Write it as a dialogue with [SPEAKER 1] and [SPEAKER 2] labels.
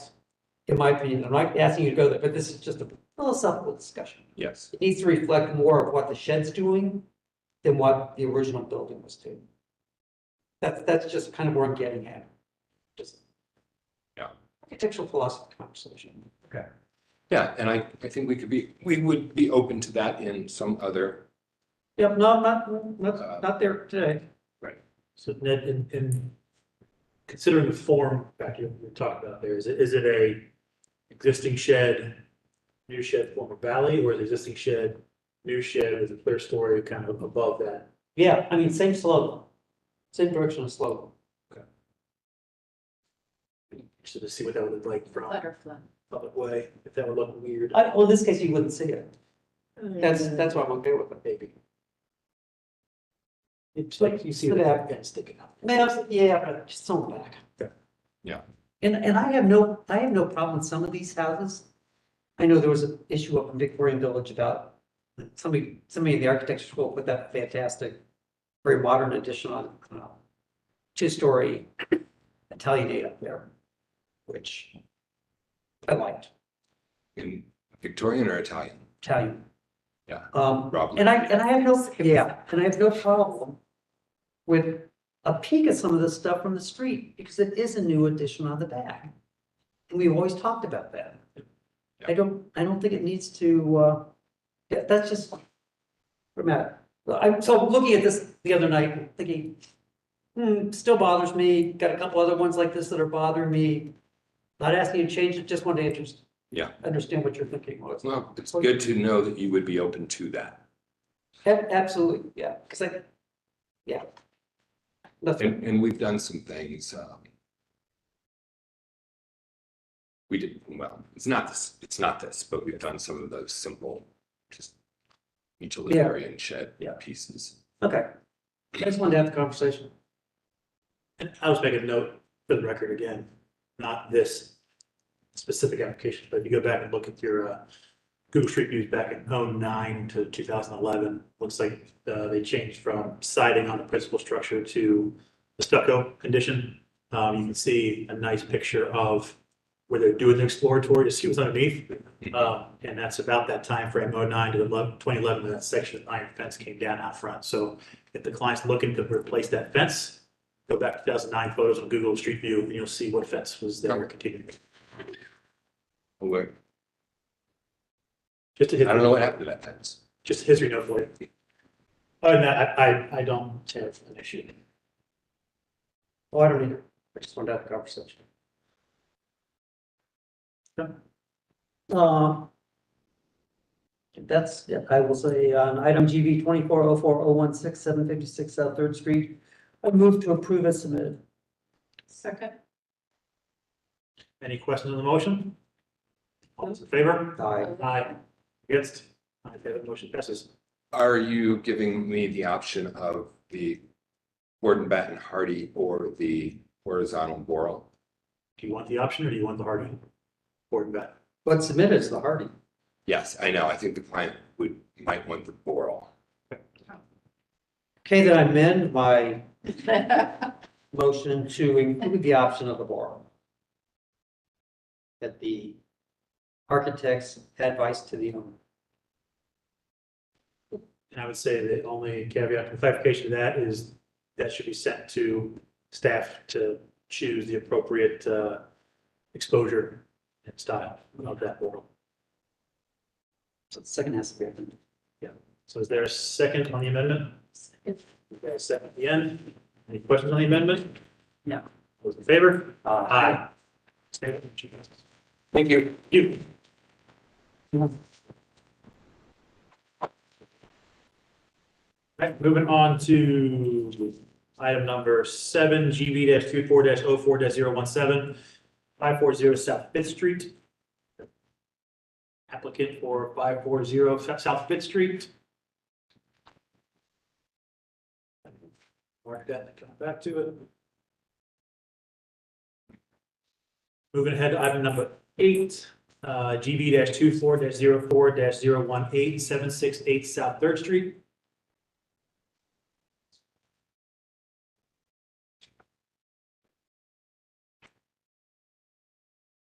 [SPEAKER 1] in my opinion, I'm not asking you to go there, but this is just a philosophical discussion.
[SPEAKER 2] Yes,
[SPEAKER 1] It needs to reflect more of what the shed's doing than what the original building was doing. That's, that's just kind of where I'm getting at. Just.
[SPEAKER 2] Yeah.
[SPEAKER 1] Architectural philosophy conversation.
[SPEAKER 2] yeah, and I, I think we could be, we would be open to that in some other,
[SPEAKER 1] Yep, no, I'm not, not, not there today.
[SPEAKER 3] So Ned, in, in considering the form that you were talking about there, is it, is it a existing shed, new shed form of valley, or is it existing shed, new shed with a clear story kind of above that?
[SPEAKER 1] Yeah, I mean, same slope, same direction of slope.
[SPEAKER 3] So to see what that would look like from
[SPEAKER 4] Butterfly.
[SPEAKER 3] public way, if that would look weird,
[SPEAKER 1] I, well, in this case, you wouldn't see it. That's, that's why I'm okay with it.
[SPEAKER 3] maybe. It's like you see
[SPEAKER 1] Sit
[SPEAKER 3] the
[SPEAKER 1] down.
[SPEAKER 3] applicant sticking up.
[SPEAKER 1] Man, I'm- yeah, but just throw them back.
[SPEAKER 3] Yeah.
[SPEAKER 2] Yeah.
[SPEAKER 1] And, and I have no, I have no problem with some of these houses. I know there was an issue up in Victorian Village about, somebody, somebody in the architecture school put that fantastic, very modern addition on, uh, two-story Italianate up there, which I liked,
[SPEAKER 2] in Victorian or Italian.
[SPEAKER 1] Italian.
[SPEAKER 2] Yeah.
[SPEAKER 1] Um,
[SPEAKER 2] Rob.
[SPEAKER 1] and I, and I have no, yeah, and I have no problem with a peek at some of this stuff from the street, because it is a new addition on the back. And we've always talked about that. I don't, I don't think it needs to, uh, yeah, that's just dramatic. Well, I'm, so looking at this the other night, thinking, hmm, still bothers me, got a couple other ones like this that are bothering me. Not asking you to change it, just wanted to just
[SPEAKER 2] Yeah.
[SPEAKER 1] understand what you're thinking was.
[SPEAKER 2] It's not, it's good to know that you would be open to that.
[SPEAKER 1] Ab- Absolutely, yeah, because I, yeah. Nothing,
[SPEAKER 2] And, and we've done some things, um. We did, well, it's not this, it's not this, but we've done some of those simple, just utilitarian shed
[SPEAKER 1] Yeah.
[SPEAKER 2] pieces.
[SPEAKER 1] okay. I just wanted to have the conversation.
[SPEAKER 3] And I'll just make a note for the record again, not this specific application, but if you go back and look at your uh, Google Street Views back in '09 to two thousand eleven, looks like uh, they changed from siding on the principal structure to the stucco condition. Um, You can see a nice picture of where they're doing the exploratory to see what's underneath. Um, And that's about that timeframe, '09 to 11 2011, when that section of iron fence came down out front. So if the client's looking to replace that fence, go back to two thousand nine photos on Google Street View, and you'll see what fence was there
[SPEAKER 2] Okay.
[SPEAKER 3] continuing.
[SPEAKER 2] Where,
[SPEAKER 3] Just a
[SPEAKER 2] I don't
[SPEAKER 3] history,
[SPEAKER 2] know what happened to that fence.
[SPEAKER 3] just a history note for you. Other than that, I, I, I don't have an issue.
[SPEAKER 1] Oh, I don't either. I just wanted to have the conversation.
[SPEAKER 3] Okay.
[SPEAKER 1] Um. That's, it. I will say, on item GV twenty-four oh four oh one six seven fifty-six South Third Street, I move to approve as submitted.
[SPEAKER 4] Second.
[SPEAKER 3] Any questions on the motion? All those in favor?
[SPEAKER 1] Aye.
[SPEAKER 3] Aye. Against? Aye, that motion passes.
[SPEAKER 2] Are you giving me the option of the Gordon Batten Hardy or the horizontal Boral?
[SPEAKER 3] Do you want the option or do you want the hard one? Board bet.
[SPEAKER 1] What's submitted is the Hardy.
[SPEAKER 2] Yes, I know. I think the client would, might want the Boral.
[SPEAKER 1] Okay, then I amend my motion to include the option of the borrow. At the architect's advice to the owner.
[SPEAKER 3] And I would say the only caveat and clarification to that is that should be sent to staff to choose the appropriate, uh, exposure and style of that portal.
[SPEAKER 1] So the second has to be. open.
[SPEAKER 3] So is there a second on the amendment? We got a Second at the end. Any questions on the amendment?
[SPEAKER 1] No.
[SPEAKER 3] Those in favor?
[SPEAKER 1] Uh,
[SPEAKER 3] Thank
[SPEAKER 2] Thank you.
[SPEAKER 3] you. Right, moving on to item number seven, GB 24 4 17 540 South Fifth Street. Applicant for five four zero South Fifth Street. Mark that, and come back to it. Moving ahead to item number eight, uh, GB 24 4 18 768 South Third Street.